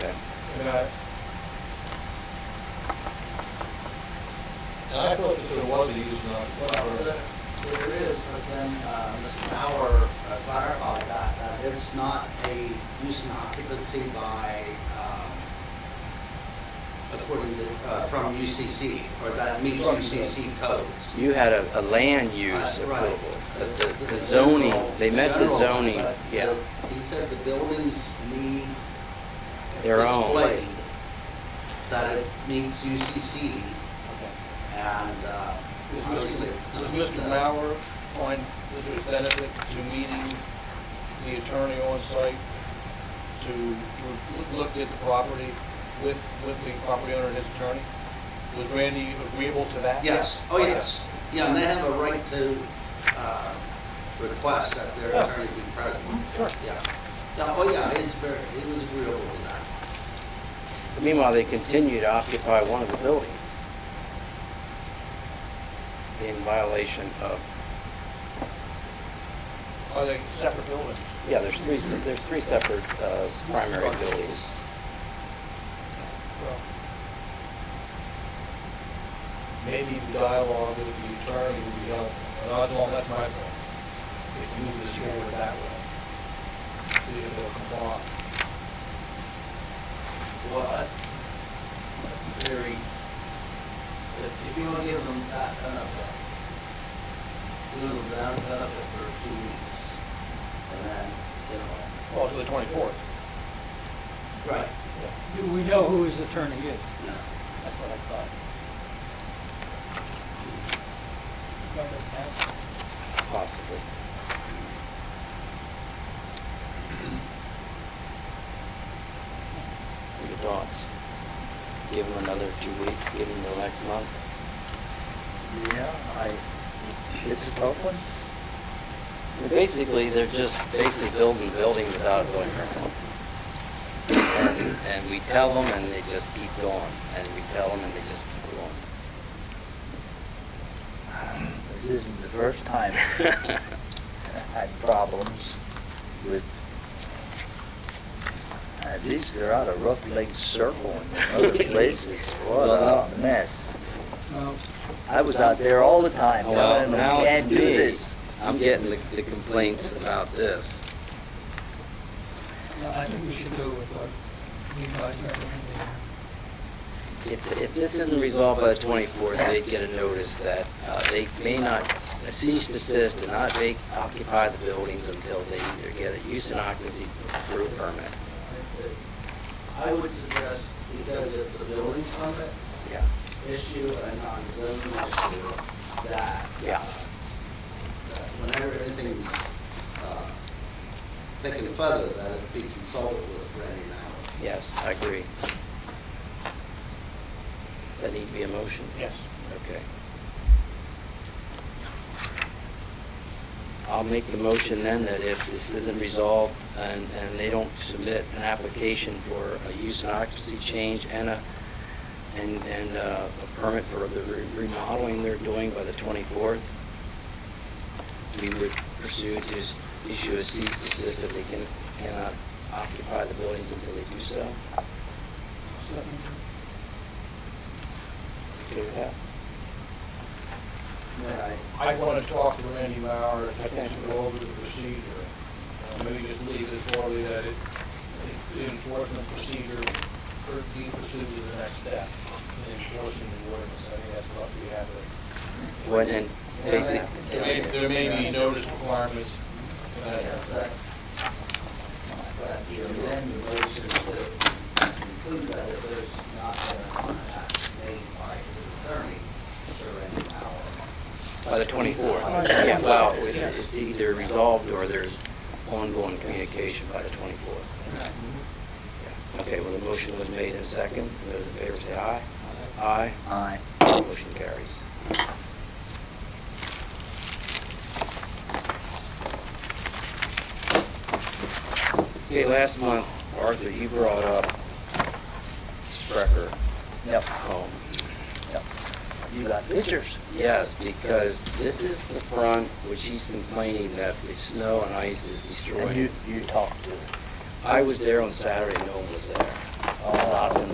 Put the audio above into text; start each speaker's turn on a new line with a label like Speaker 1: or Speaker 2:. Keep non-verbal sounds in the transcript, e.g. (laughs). Speaker 1: But
Speaker 2: And I thought that there was a use not to
Speaker 3: Well,
Speaker 2: cover.
Speaker 3: there there is, but then uh, Mr. Bauer uh, clarified that, that it's not a use and occupancy by, um, according to, uh, from UCC, or that meets UCC codes.
Speaker 4: You had a, a land use
Speaker 3: Uh, right.
Speaker 4: approval. The- The the zoning, they met the
Speaker 3: general,
Speaker 4: zoning,
Speaker 3: but
Speaker 4: yeah.
Speaker 3: the- He said the buildings need
Speaker 4: Their own.
Speaker 3: displayed that it meets UCC, and uh,
Speaker 2: Does
Speaker 3: obviously
Speaker 2: Mr.
Speaker 3: it's
Speaker 2: Does Mr.
Speaker 3: not. uh,
Speaker 2: Mauer find that there's benefit to meeting the attorney on site to re- look at the property with, with the property owner and his attorney? Was Randy agreeable to that?
Speaker 3: Yes, oh, yes. Yeah, and they have a right to uh, request that their
Speaker 2: Yeah.
Speaker 3: attorney be present.
Speaker 2: Sure.
Speaker 3: Yeah. Yeah, oh, yeah, he's very, he was agreeable to that.
Speaker 4: Meanwhile, they continue to occupy one of the buildings in violation of,
Speaker 2: Are they separate buildings?
Speaker 4: yeah, there's three, se- there's three separate uh, primary buildings.
Speaker 2: Well, Maybe the dialogue with the attorney would be helpful, and that's all, that's my point. If you move this forward that way, see if it'll comply.
Speaker 3: What? Very, if if you want to give them that benefit, give them that benefit for two weeks, and then, you know.
Speaker 2: Well, to the twenty-fourth.
Speaker 3: Right.
Speaker 1: do we know who his attorney is?
Speaker 3: Yeah.
Speaker 1: That's what I thought.
Speaker 4: Possibly. What are your thoughts? Give them another two weeks, give them the next month?
Speaker 5: Yeah, I, it's a tough one.
Speaker 4: Basically, they're just basically building a building without a building permit. And- And we tell them and they just keep going, and we tell them and they just keep going.
Speaker 5: This isn't the first time I've had problems with, at least they're out of Rough Lake Circle
Speaker 4: (laughs)
Speaker 5: and other places. What a mess.
Speaker 1: Well,
Speaker 5: I was out there all the time
Speaker 4: Well,
Speaker 5: telling them,
Speaker 4: now it's
Speaker 5: can't do
Speaker 4: me.
Speaker 5: this.
Speaker 4: I'm getting the the complaints about this.
Speaker 1: no, I think we should go with what you guys recommended.
Speaker 4: If, if this isn't resolved by the 24th, they get a notice that uh, they may not cease to desist and not take, occupy the buildings until they either get a use and occupancy through permit.
Speaker 3: I would suggest, because it's a building permit
Speaker 4: Yeah.
Speaker 3: issue and not a zoning issue, that.
Speaker 4: Yeah.
Speaker 3: that Whenever anything's, uh, taken further, that it be consulted with Randy Mauer.
Speaker 4: Yes, I agree. Does that need to be a motion?
Speaker 2: Yes.
Speaker 4: Okay. I'll make the motion then that if this isn't resolved and, and they don't submit an application for a use and occupancy change and a, and, and uh, a permit for the re- remodeling they're doing by the 24th, we would pursue to s- issue a cease and desist if they can, cannot occupy the buildings until they do so. Okay with that?
Speaker 3: Right.
Speaker 2: I want to talk to Randy Mauer
Speaker 4: Okay.
Speaker 2: to go over the procedure. Uh, Maybe just leave it broadly that it, if the enforcement procedure could be pursued to the next step, in enforcing the ordinance. I think that's what we have to.
Speaker 4: When, and basic.
Speaker 2: There may, there may be notice requirements. uh,
Speaker 3: That, that you amend the motion to include that if there's not an act made by the attorney to Randy Mauer.
Speaker 4: By the 24th. Yeah, well, it's either resolved or there's ongoing communication by the 24th. Yeah. Okay, well, the motion was made in second. Those in favor say aye. Aye.
Speaker 5: I,
Speaker 4: Motion carries. Okay, last month, Arthur, you brought up Sprecher
Speaker 5: yep,
Speaker 4: home.
Speaker 5: yep. You got pictures?
Speaker 4: Yes, because this is the front which he's complaining that the snow and ice is
Speaker 5: And you,
Speaker 4: destroying.
Speaker 5: you talked to them.
Speaker 4: I was there on Saturday, no one was there.